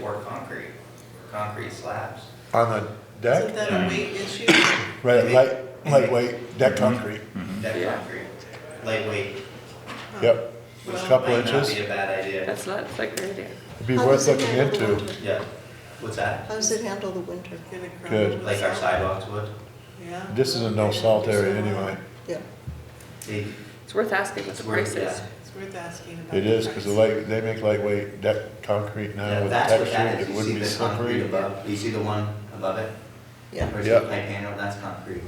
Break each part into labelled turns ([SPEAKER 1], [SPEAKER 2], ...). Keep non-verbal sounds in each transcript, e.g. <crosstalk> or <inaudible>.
[SPEAKER 1] pour concrete, concrete slabs.
[SPEAKER 2] on the
[SPEAKER 3] Isn't
[SPEAKER 2] deck,
[SPEAKER 3] that a weight issue?
[SPEAKER 2] right,
[SPEAKER 3] Weight?
[SPEAKER 2] light, lightweight, deck
[SPEAKER 4] Mm-hmm.
[SPEAKER 2] concrete,
[SPEAKER 1] Deck
[SPEAKER 5] Yeah.
[SPEAKER 1] concrete, lightweight,
[SPEAKER 2] <coughs> yep.
[SPEAKER 1] which
[SPEAKER 3] Well,
[SPEAKER 2] Couple
[SPEAKER 1] might not be
[SPEAKER 2] inches,
[SPEAKER 1] a bad idea.
[SPEAKER 5] That's not a great idea.
[SPEAKER 2] it'd be
[SPEAKER 6] How
[SPEAKER 2] worth
[SPEAKER 6] does it
[SPEAKER 2] looking
[SPEAKER 6] handle the
[SPEAKER 2] into.
[SPEAKER 6] winter?
[SPEAKER 1] Yeah, what's that?
[SPEAKER 6] How does it handle the winter?
[SPEAKER 3] In a crowd
[SPEAKER 2] Good.
[SPEAKER 3] with
[SPEAKER 1] Like our sidewalks would?
[SPEAKER 3] Yeah.
[SPEAKER 2] This is a no salt area anyway.
[SPEAKER 6] Yeah,
[SPEAKER 1] They-
[SPEAKER 5] It's worth asking what
[SPEAKER 1] it's
[SPEAKER 5] the
[SPEAKER 1] worth-
[SPEAKER 5] price is.
[SPEAKER 1] yeah.
[SPEAKER 3] It's worth asking about.
[SPEAKER 2] It
[SPEAKER 3] the
[SPEAKER 2] is, cause the
[SPEAKER 3] price.
[SPEAKER 2] light, they make lightweight deck concrete
[SPEAKER 1] Yeah,
[SPEAKER 2] now with the
[SPEAKER 1] That's what that
[SPEAKER 2] texture,
[SPEAKER 1] is,
[SPEAKER 2] it
[SPEAKER 1] you
[SPEAKER 2] wouldn't
[SPEAKER 1] see
[SPEAKER 2] be
[SPEAKER 1] the concrete
[SPEAKER 2] slippery.
[SPEAKER 1] above, you see the one above it?
[SPEAKER 6] yeah.
[SPEAKER 1] Where's
[SPEAKER 2] Yeah.
[SPEAKER 1] the pipe handle, that's concrete.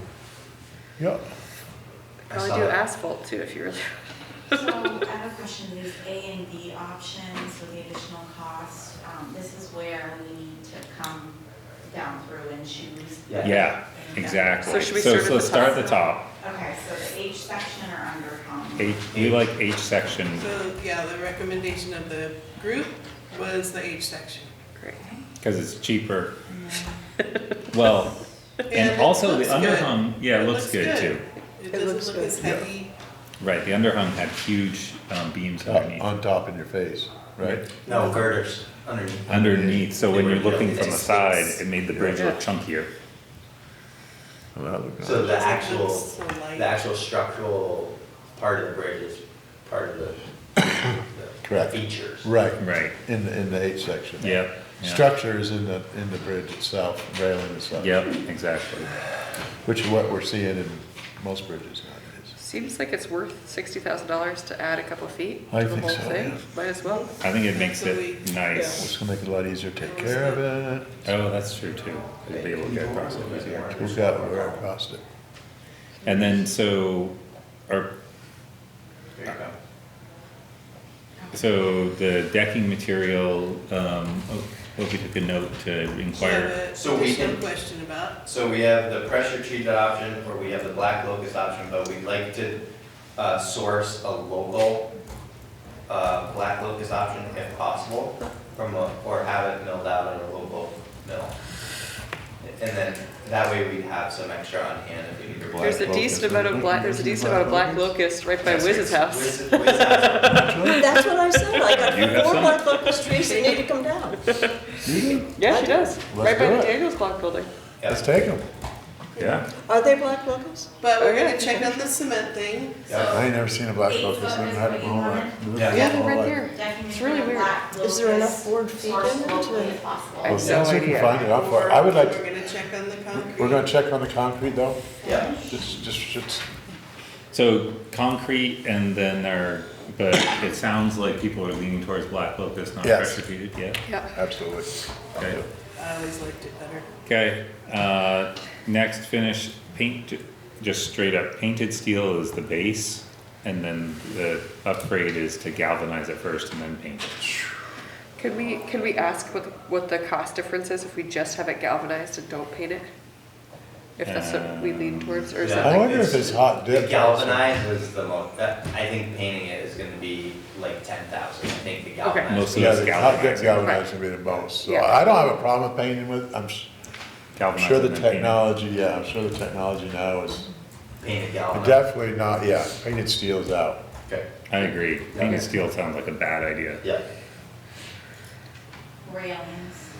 [SPEAKER 2] Yep,
[SPEAKER 1] I
[SPEAKER 5] Probably
[SPEAKER 1] saw
[SPEAKER 5] do
[SPEAKER 1] that.
[SPEAKER 5] asphalt too if you really. <laughs>
[SPEAKER 7] So I have a question, these A and B options with the additional cost, um, this is where we need to come down through and choose.
[SPEAKER 4] Yeah, exactly.
[SPEAKER 5] So should we start at the
[SPEAKER 4] So start
[SPEAKER 5] top?
[SPEAKER 4] at the top.
[SPEAKER 7] Okay, so the H section or under home?
[SPEAKER 4] H, we like H section.
[SPEAKER 3] So, yeah, the recommendation of the group was the H section.
[SPEAKER 5] Great.
[SPEAKER 4] Because it's cheaper. Well,
[SPEAKER 3] it
[SPEAKER 4] and also the
[SPEAKER 3] looks good.
[SPEAKER 4] underhung, yeah, it looks good too.
[SPEAKER 3] It doesn't
[SPEAKER 6] looks
[SPEAKER 3] look
[SPEAKER 6] good.
[SPEAKER 3] as heavy.
[SPEAKER 4] Right, the underhung had huge um, beams
[SPEAKER 2] Uh,
[SPEAKER 4] underneath.
[SPEAKER 2] on top in your face, right?
[SPEAKER 1] No, girders underneath.
[SPEAKER 4] Underneath, so when
[SPEAKER 1] They
[SPEAKER 4] you're
[SPEAKER 1] were-
[SPEAKER 4] looking from the
[SPEAKER 1] it's-
[SPEAKER 4] side, it made the bridge look
[SPEAKER 5] Yeah.
[SPEAKER 4] chunkier.
[SPEAKER 2] I'm not looking at
[SPEAKER 1] So
[SPEAKER 2] it.
[SPEAKER 1] the
[SPEAKER 3] It's like
[SPEAKER 1] actual,
[SPEAKER 3] it's so light.
[SPEAKER 1] the actual structural part of the bridge is part of the- <coughs> the
[SPEAKER 2] Correct.
[SPEAKER 1] features.
[SPEAKER 2] Right,
[SPEAKER 4] Right,
[SPEAKER 2] in the, in the H section.
[SPEAKER 4] yep. yeah,
[SPEAKER 2] Structure is in the, in the bridge itself, railing itself.
[SPEAKER 4] Yep, exactly.
[SPEAKER 2] Which is what we're seeing in most bridges nowadays.
[SPEAKER 5] Seems like it's worth sixty thousand dollars to add a couple feet
[SPEAKER 2] I
[SPEAKER 5] to the
[SPEAKER 2] think
[SPEAKER 5] whole
[SPEAKER 2] so,
[SPEAKER 5] thing.
[SPEAKER 2] yeah.
[SPEAKER 5] Might as well.
[SPEAKER 4] I think it makes it
[SPEAKER 3] Absolutely.
[SPEAKER 4] nice.
[SPEAKER 2] It's gonna make it a lot easier to take care of it.
[SPEAKER 4] Oh, that's true too. It'd be able to get across it easier.
[SPEAKER 2] We've got where across it.
[SPEAKER 4] And then so, or,
[SPEAKER 1] There you go.
[SPEAKER 4] so the decking material, um, oh, hope you took a note to inquire.
[SPEAKER 1] So we
[SPEAKER 3] There's
[SPEAKER 1] can-
[SPEAKER 3] no question about,
[SPEAKER 1] So we have the pressure treated option, or we have the black locust option, but we'd like to uh, source a local uh, black locust option if possible, from, a- or have it milled out at a local mill. And then, that way we'd have some extra on hand if we need to.
[SPEAKER 5] There's a
[SPEAKER 2] locust,
[SPEAKER 5] decent amount of
[SPEAKER 2] isn't it?
[SPEAKER 5] black, there's a decent amount of black locust right by Wiz's house.
[SPEAKER 1] Wiz- Wiz house.
[SPEAKER 6] That's what I said, I got
[SPEAKER 4] You have
[SPEAKER 6] four
[SPEAKER 4] some?
[SPEAKER 6] black locust trees that need to come down.
[SPEAKER 5] Yeah, she does. Right by
[SPEAKER 2] do it.
[SPEAKER 5] Daniel's block building.
[SPEAKER 1] Yeah.
[SPEAKER 2] Let's take them.
[SPEAKER 4] Yeah.
[SPEAKER 6] Are they black locusts?
[SPEAKER 3] but we're
[SPEAKER 5] Okay.
[SPEAKER 3] gonna check out the cement thing.
[SPEAKER 1] Yeah.
[SPEAKER 2] I ain't never seen a black locust. I haven't had it in my life.
[SPEAKER 1] Yeah.
[SPEAKER 5] Yeah, they're right there.
[SPEAKER 7] Decking
[SPEAKER 5] It's really
[SPEAKER 7] material,
[SPEAKER 5] weird.
[SPEAKER 7] black
[SPEAKER 6] Is there enough
[SPEAKER 7] locust,
[SPEAKER 6] board feet
[SPEAKER 7] sourced
[SPEAKER 6] in it
[SPEAKER 7] locally
[SPEAKER 6] to-
[SPEAKER 7] if possible.
[SPEAKER 5] I
[SPEAKER 2] Well,
[SPEAKER 5] have
[SPEAKER 2] see
[SPEAKER 5] no
[SPEAKER 2] if we
[SPEAKER 5] idea.
[SPEAKER 2] can find it out for, I would like,
[SPEAKER 3] We're
[SPEAKER 2] to-
[SPEAKER 3] gonna check on the concrete.
[SPEAKER 2] we're gonna check on the concrete though.
[SPEAKER 1] Yeah.
[SPEAKER 2] Just, just, just,
[SPEAKER 4] So concrete and then there, but it sounds like people are leaning towards black locust, not
[SPEAKER 2] Yes.
[SPEAKER 4] pressure treated, yeah?
[SPEAKER 5] Yeah.
[SPEAKER 2] absolutely.
[SPEAKER 4] Okay.
[SPEAKER 3] I always liked it better.
[SPEAKER 4] Okay, uh, next finish, paint, just straight up painted steel is the base. And then the upgrade is to galvanize it first and then paint it.
[SPEAKER 5] Could we, could we ask what, the- what the cost difference is if we just have it galvanized and don't paint it? If that's what we lean towards, or is
[SPEAKER 1] Um, Yeah.
[SPEAKER 5] that
[SPEAKER 2] I
[SPEAKER 5] like,
[SPEAKER 2] wonder if it's hot
[SPEAKER 1] The
[SPEAKER 2] dip.
[SPEAKER 1] galvanized was the most, that, I think painting it is gonna be like ten thousand, I think the galvanized.
[SPEAKER 4] Most of
[SPEAKER 2] Yeah,
[SPEAKER 4] it's
[SPEAKER 2] the hot dip
[SPEAKER 4] galvanized.
[SPEAKER 2] galvanized would be the most. So
[SPEAKER 5] Yeah.
[SPEAKER 2] I don't have a problem with painting with, I'm s- I'm
[SPEAKER 4] Galvanize
[SPEAKER 2] sure
[SPEAKER 4] and
[SPEAKER 2] the
[SPEAKER 4] then paint it.
[SPEAKER 2] technology, yeah, I'm sure the technology now is
[SPEAKER 1] Painted galvanized.
[SPEAKER 2] definitely not, yeah, painted steel's out.
[SPEAKER 1] Okay,
[SPEAKER 4] I agree.
[SPEAKER 1] Yeah.
[SPEAKER 4] Painted steel sounds like a bad idea.
[SPEAKER 1] yeah.
[SPEAKER 7] Railings.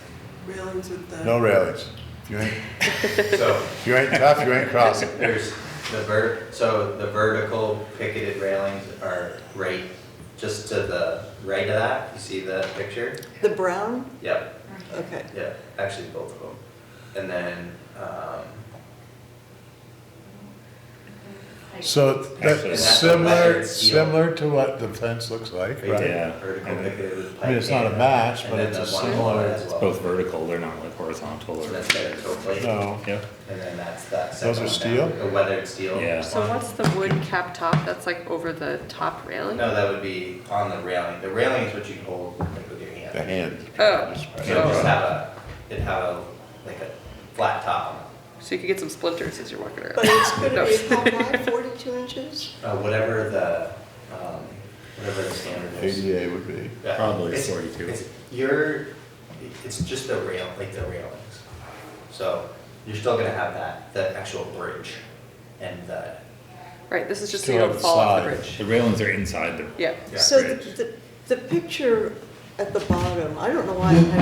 [SPEAKER 3] Railings with the.
[SPEAKER 2] No railings. If you ain't,
[SPEAKER 1] So
[SPEAKER 2] if you ain't tough, you ain't crossing.
[SPEAKER 1] there's the ver, so the vertical picketed railings are right, just to the right of that, you see that picture?
[SPEAKER 6] The brown?
[SPEAKER 1] Yep,
[SPEAKER 6] Okay.
[SPEAKER 1] yeah, actually both of them. And then, um,
[SPEAKER 7] Like-
[SPEAKER 2] So
[SPEAKER 4] Actually,
[SPEAKER 2] that's
[SPEAKER 4] that's
[SPEAKER 2] similar,
[SPEAKER 1] measured steel.
[SPEAKER 2] similar to what the fence looks like,
[SPEAKER 1] right
[SPEAKER 2] right?
[SPEAKER 1] there,
[SPEAKER 4] Yeah.
[SPEAKER 1] vertical
[SPEAKER 4] And then-
[SPEAKER 1] picketed with pipe.
[SPEAKER 2] I mean, it's not a
[SPEAKER 1] and-
[SPEAKER 2] match,
[SPEAKER 1] and
[SPEAKER 2] but
[SPEAKER 1] then
[SPEAKER 2] it's
[SPEAKER 1] the
[SPEAKER 2] a
[SPEAKER 1] one below
[SPEAKER 2] similar,
[SPEAKER 1] it as
[SPEAKER 4] It's
[SPEAKER 1] well.
[SPEAKER 4] both vertical, they're not like
[SPEAKER 1] So
[SPEAKER 4] horizontal or, Oh,
[SPEAKER 1] that's better, hopefully.
[SPEAKER 2] no.
[SPEAKER 4] yeah.
[SPEAKER 1] And then that's that
[SPEAKER 2] Those
[SPEAKER 1] second
[SPEAKER 2] are
[SPEAKER 1] one down,
[SPEAKER 2] steel?
[SPEAKER 1] The weathered steel.
[SPEAKER 4] Yeah.
[SPEAKER 5] so what's the wood cap top that's like over the top railing?
[SPEAKER 1] No, that would be on the railing. The railing is what you hold like with your hand.
[SPEAKER 2] The hand.
[SPEAKER 5] Oh.
[SPEAKER 1] So it'd just
[SPEAKER 5] Oh.
[SPEAKER 1] have a, it'd have a, like a flat top on it.
[SPEAKER 5] So you could get some splinters as you're walking
[SPEAKER 6] But
[SPEAKER 5] around.
[SPEAKER 6] it's gonna
[SPEAKER 4] <laughs>
[SPEAKER 6] be how high, forty-two inches?
[SPEAKER 1] Uh, whatever the, um, whatever the standard is.
[SPEAKER 2] ADA would be.
[SPEAKER 1] Yeah.
[SPEAKER 4] Probably
[SPEAKER 1] It's-
[SPEAKER 4] 42.
[SPEAKER 1] It's, you're, it's just the rail, like the railings. So you're still gonna have that, the actual bridge and the,
[SPEAKER 5] Right, this is just so
[SPEAKER 2] Still
[SPEAKER 5] you
[SPEAKER 2] have
[SPEAKER 5] don't
[SPEAKER 2] the
[SPEAKER 5] fall off the
[SPEAKER 2] side.
[SPEAKER 5] bridge.
[SPEAKER 4] The railings are inside the
[SPEAKER 5] Yeah.
[SPEAKER 1] Yeah.
[SPEAKER 6] So
[SPEAKER 4] Right.
[SPEAKER 6] the, the, the picture at the bottom, I don't know why I have